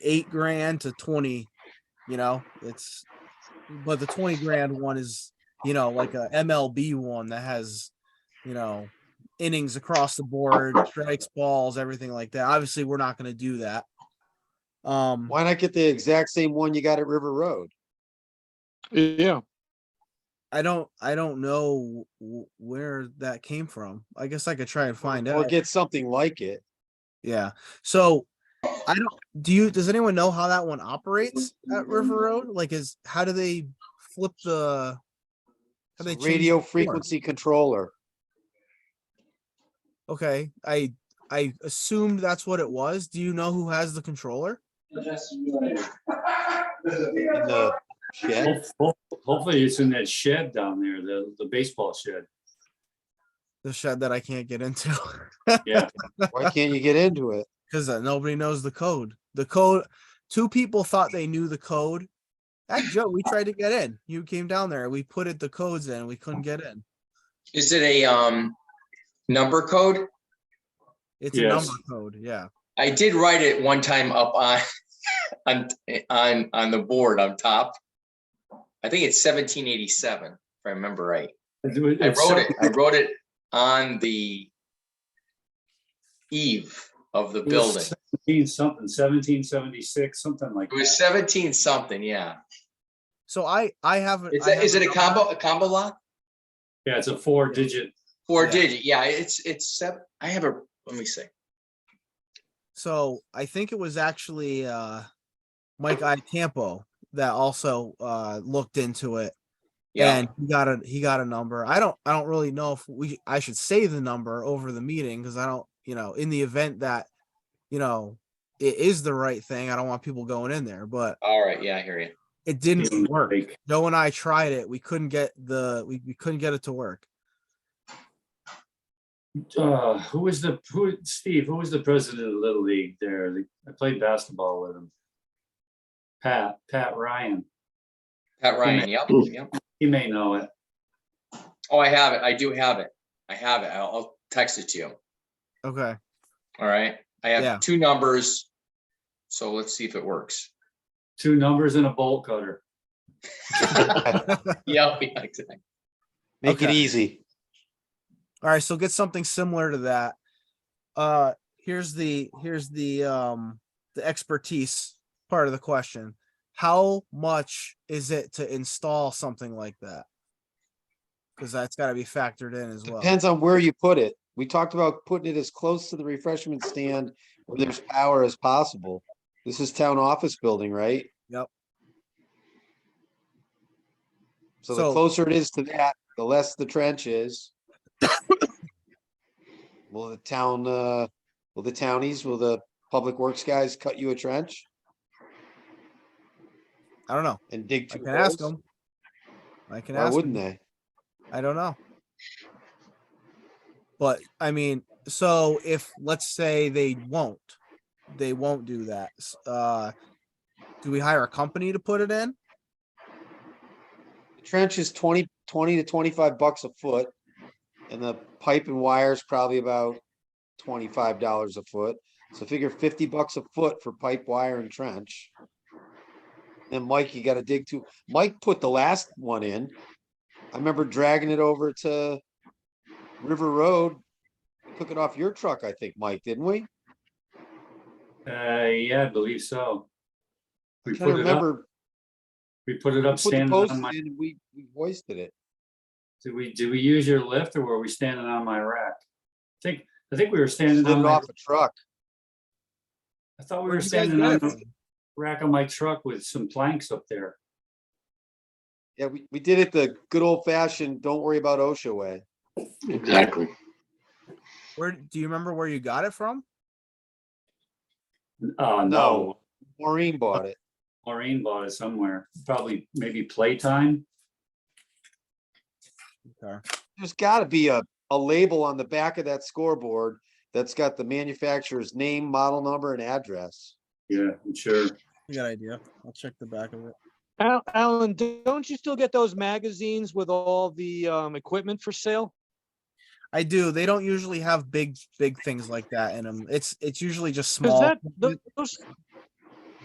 eight grand to twenty, you know, it's, but the twenty grand one is, you know, like a MLB one that has, you know, innings across the board, strikes, balls, everything like that. Obviously, we're not gonna do that. Um, Why not get the exact same one you got at River Road? Yeah, I don't, I don't know w- where that came from. I guess I could try and find Or out. get something like it. Yeah. So I don't do you does anyone know how that one operates at River Road? Like is how do they flip the how they change the Radio form? frequency controller. Okay. I I assumed that's what it was. Do you know who has the controller? in the shed. Hope- hope- Hopefully it's in that shed down there, the, the baseball shed. The shed that I can't get into Yeah, Why can't you get into it? because uh, nobody knows the code. The code two people thought they knew the code. That Joe, we tried to get in. You came down there. We put it the codes in. We couldn't get in. Is it a um number code? It's a Yes. number code. Yeah. I did write it one time up on on on on the board on top. I think it's seventeen eighty-seven, if I remember right. It was- I it's wrote some- it, I wrote it on the eve of the it was building. Seventeen something, seventeen seventy-six, something like It was that. seventeen something, yeah. So I I haven't. Is I that, is it haven't a done that. combo, a combo lock? Yeah, it's a four-digit, Four Yeah. digit, yeah, it's, it's seven, I have a, let me see. So I think it was actually uh Mike I Campo that also uh looked into it Yeah, and he got a he got a number. I don't I don't really know if we I should say the number over the meeting because I don't you know in the event that you know it is the right thing. I don't want people going in there, but all right, yeah, I hear you. it didn't work. like, Joe and I tried it. We couldn't get the we, we couldn't get it to work. uh, who was the, who, Steve, who was the president of Little League there? The- I played basketball with him. Pat, Pat Ryan, Pat Ryan, yep, yep. he may know it. Oh, I have it. I do have it. I have it. I'll, I'll text it to you. Okay. All right. I Yeah. have two numbers. So let's see if it works. Two numbers and a bolt cutter. Yep, yeah, exactly. Make it Okay. easy. All right, so get something similar to that. Uh, here's the here's the um the expertise part of the question. How much is it to install something like that? Because that's got to be factored in as well. Depends on where you put it. We talked about putting it as close to the refreshment stand where there's power as possible. This is town office building, right? Yep. So the So- closer it is to that, the less the trench is. Will the town, uh, will the townies, will the public works guys cut you a trench I don't know. and dig I two can ask holes? them. I can Why ask. 'em. wouldn't they? I don't know. But I mean, so if let's say they won't, they won't do that. s- Uh, do we hire a company to put it in? The Trench is 20 20 to twenty-five bucks a foot. And the pipe and wire is probably about twenty-five dollars a foot. So figure fifty bucks a foot for pipe, wire and trench. And Mike, you gotta dig too. Mike put the last one in. I remember dragging it over to River Road. Took it off your truck, I think, Mike, didn't we? Uh, yeah, I believe so. We I'm trying to put it up, remember. we put we it up Put the standing post on in my, and we, we hoisted it. did we, did we use your lift or were we standing on my rack? I think, I think we were standing Slid on it my off a truck. I thought we Where'd were you guys standing get on it the from? rack of my truck with some planks up there. Yeah, we, we did it the good old fashioned, don't worry about OSHA way. Exactly. Where do you remember where you got it from? Uh, no, No. Maureen bought it. Maureen bought it somewhere, probably maybe playtime. There's gotta be a, a label on the back of that scoreboard that's got the manufacturer's name, model number and address. Yeah, I'm sure. I got an idea. I'll check the back of it. Al- Alan, d- don't you still get those magazines with all the um equipment for sale? I do. They don't usually have big, big things like that in them. It's it's usually just Cause small. that, equipment. tho- those,